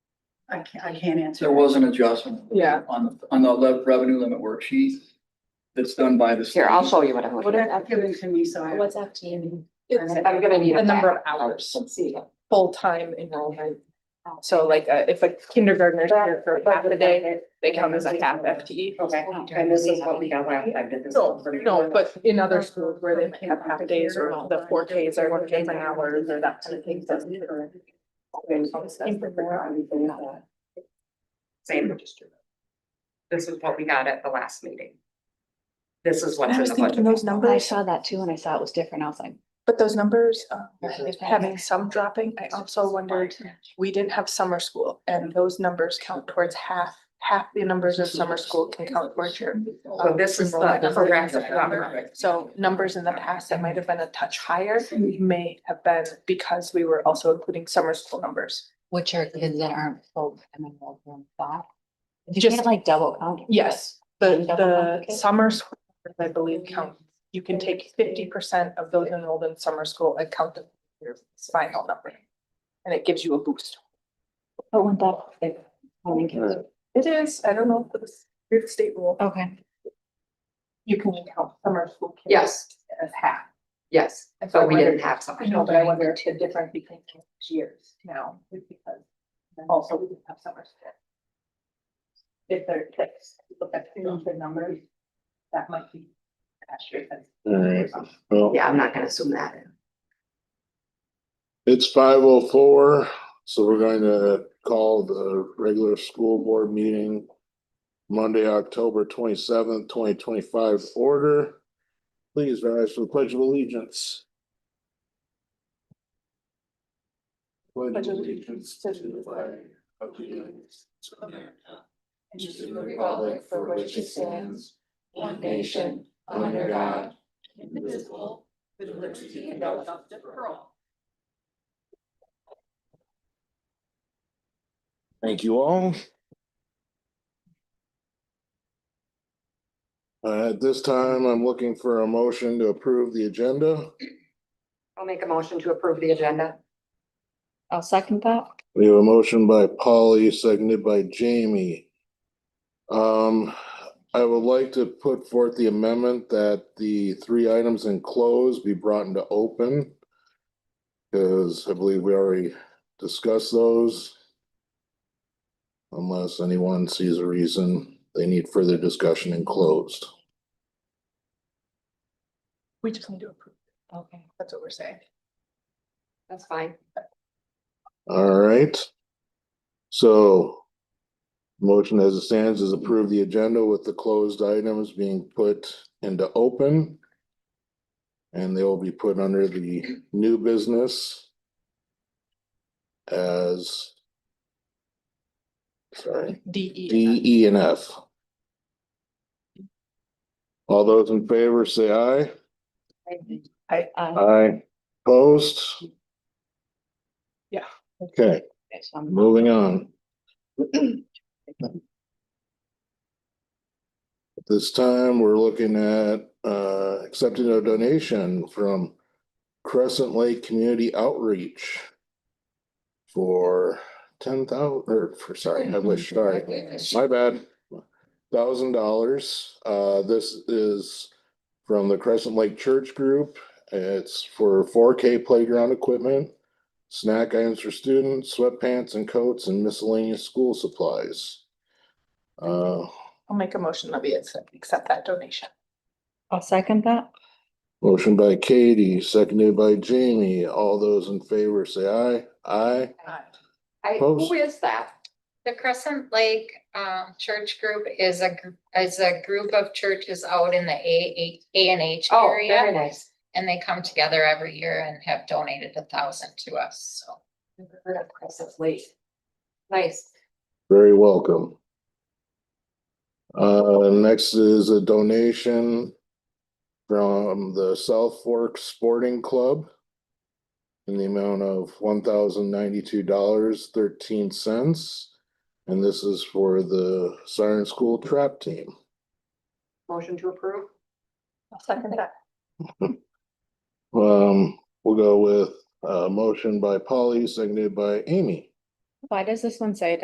I can't, I can't answer. There was an adjustment. Yeah. On, on the le- revenue limit worksheet that's done by the. Here, I'll show you what I'm looking at. Whatever, give it to me, so I. What's FTE? It's I'm gonna need. the it number of back. hours, Let's see. full-time enrollment. So like, uh, if a kindergartner is here for half a day, they count as a half FTE. Okay, E. and this is what we got last time, did this. No, no, but in other schools where they have half days or the four Ks or one Ks an hour or that kind of thing. so- Same. This is what we got at the last meeting. This is I what's in was the thinking budget. those I numbers, saw that too, and I saw it was different. I was like. but those numbers, uh, Yes, having some dropping, I also wondered, we didn't have summer school and those numbers count towards half, half the numbers of summer school can count towards your. So this is the enrollment number. correct number. So numbers in the past that might have been a touch higher may have been because we were also including summer school numbers. Which are kids that aren't full time enrolled in that? You Just- can't like double count. Yes, the, And double the complicate. summer school, I believe, count, you can take fifty percent of those enrolled in summer school and count them as your final number. And it gives you a boost. But when Oh, that, like, how many kids? It is, I don't know, if it's your state rule, Okay. you can count summer school. kids Yes, As half. yes, And so I but we wondered- didn't have I something. know, but I wonder if the difference between those years now is because also we didn't have summer school. If there, if you look at the numbers, that might be. accurate. Alright, well, Yeah, I'm not gonna assume that. it's five oh four, so we're going to call the regular school board meeting. Monday, October twenty seventh, twenty twenty five order. Please rise for the pledge of allegiance. Pledge of allegiance to the flag of the United States of America, and to the republic for which it stands, one nation, under God, indivisible, with liberty and justice for all. Thank you all. Uh, at this time, I'm looking for a motion to approve the agenda. I'll make a motion to approve the agenda. I'll second that. We have a motion by Polly, seconded by Jamie. Um, I would like to put forth the amendment that the three items in close be brought into open. Cause I believe we already discussed those. Unless anyone sees a reason they need further discussion in closed. We just need to approve, Okay. that's what we're saying. That's fine. All right. So. Motion as it stands is approve the agenda with the closed items being put into open. And they will be put under the new business. As. Sorry, D E. D, E, and F. All those in favor say aye. Uh, Aye. Post. Yeah. Okay. so I'm- Moving on. At This time, we're looking at uh accepting a donation from Crescent Lake Community Outreach. For ten thousand, or for, sorry, I wish, sorry, my bad, thousand dollars. Uh, this is from the Crescent Lake Church Group. It's for four K playground equipment snack items for students, sweatpants and coats, and miscellaneous school supplies. Uh, I'll make a motion that we accept, accept that donation. I'll second that. motion by Katie, seconded by Jamie. All those in favor say aye. Aye. I, Post. who is that? The Crescent Lake um Church Group is a is a group of churches out in the A A and H Oh, very nice. And they come together every year and have donated a thousand to us, so. Never Heard of Crescent Lake. Nice. Very welcome. Uh, next is a donation from the South Fork Sporting Club in the amount of one thousand ninety-two dollars thirteen cents. And this is for the Siren School Trap Team. Motion to approve? I'll second that. Um, we'll uh, go with a motion by Polly, seconded by Amy. Why does this one say